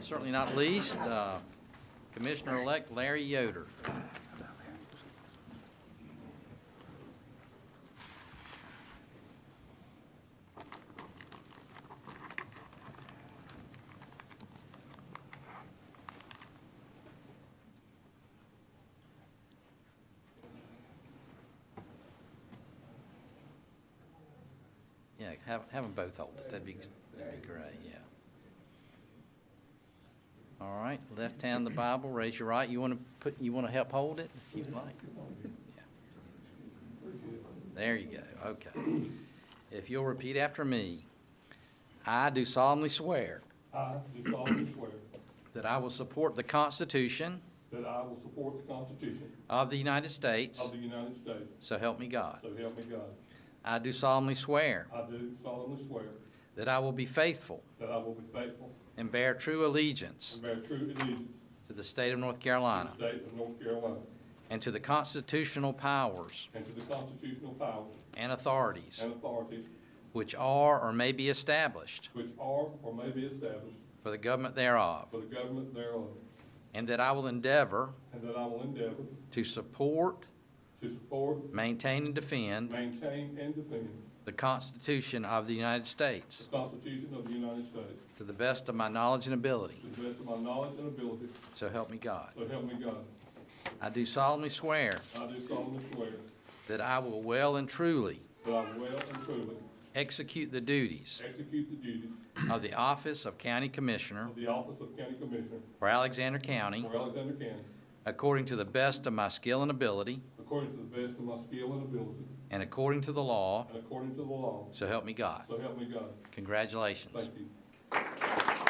certainly not least, uh, Commissioner-elect Larry Yoder. Yeah, have, have them both hold it, that'd be, that'd be great, yeah. All right, left hand the Bible, raise your right, you want to put, you want to help hold it, if you'd like? Yeah. There you go, okay. If you'll repeat after me, I do solemnly swear I do solemnly swear that I will support the Constitution that I will support the Constitution of the United States, of the United States, so help me God. so help me God. I do solemnly swear I do solemnly swear that I will be faithful that I will be faithful and bear true allegiance and bear true allegiance to the state of North to Carolina the state of North Carolina and to the constitutional powers and to the constitutional powers and authorities and authorities which are or may be established which are or may be established for the government thereof, for the government thereof, and that I will endeavor and that I will endeavor to support, to support, maintain, and defend maintain, and defend the Constitution of the United the States Constitution of the United States to the best of my knowledge and ability, to the best of my knowledge and ability, so help me God. so help me God. I do solemnly swear I do solemnly swear that I will well and truly that I will and truly execute the duties execute the duties of the office of County Commissioner Of the office of county commissioner for Alexander County for Alexander County, according to the best of my skill and ability according to the best of my skill and ability, and according to the law, and according to the law, so help me God. so help me God. Congratulations. Thank you.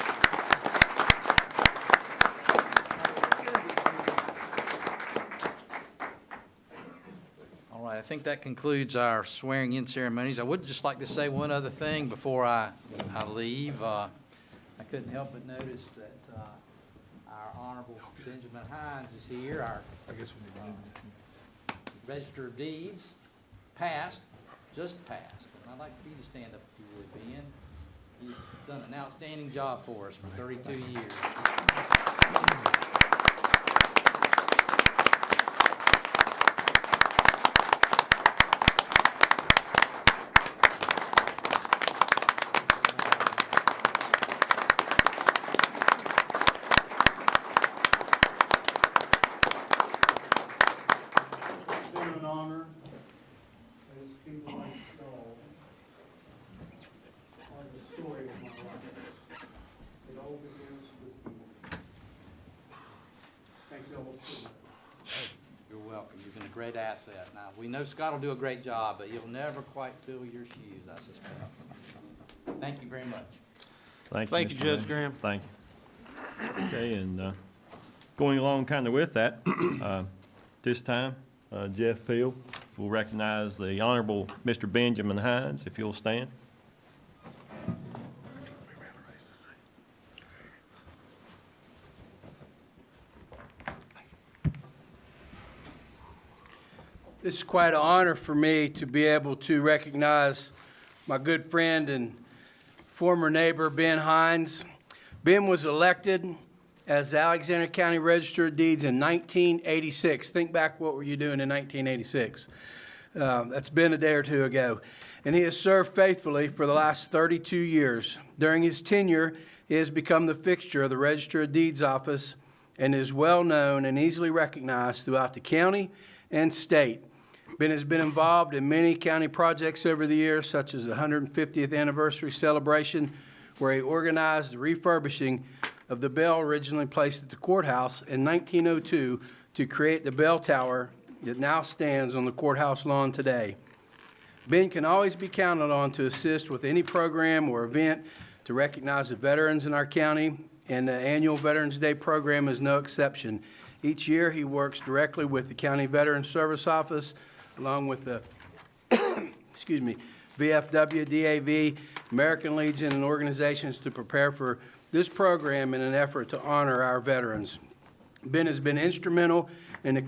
All right, I think that concludes our swearing-in ceremonies. I would just like to say one other thing before I, I leave. Uh, I couldn't help but notice that uh, our Honorable Benjamin Hines is here, our uh, Register of Deeds, passed, just passed. And I'd like for you to stand up if you would, Ben. You've done an outstanding job for us for 32 years. It's been an honor as people like Saul are the story of my life. It all begins with you. Thank you all so much. You're welcome. You've been a great asset. Now, we know Scott will do a great job, but you'll never quite fill your shoes, I suspect. Thank you very much. Thank you. Thank you, Mr. Judge Lynn. Graham. Thank you. Okay, and uh, going along kind of with that, uh, this time, uh, Jeff Peel will recognize the Honorable Mr. Benjamin Hines, if you'll stand. This is quite an honor for me to be able to recognize my good friend and former neighbor, Ben Hines. Ben was elected as Alexander County Register of Deeds in 1986. Think back, what were you doing in 1986? Uh, That's been a day or two ago. And he has served faithfully for the last 32 years. During his tenure, he has become the fixture of the Register of Deeds office and is well-known and easily recognized throughout the county and state. Ben has been involved in many county projects over the years, such as the 150th anniversary celebration, where he organized the refurbishing of the bell originally placed at the courthouse in 1902 to create the bell tower that now stands on the courthouse lawn today. Ben can always be counted on to assist with any program or event to recognize the veterans in our county, and the annual Veterans Day program is no exception. Each year, he works directly with the County Veterans Service Office, along with the excuse me, VFW, DAV, American Legion, and organizations to prepare for this program in an effort to honor our veterans. Ben has been instrumental in the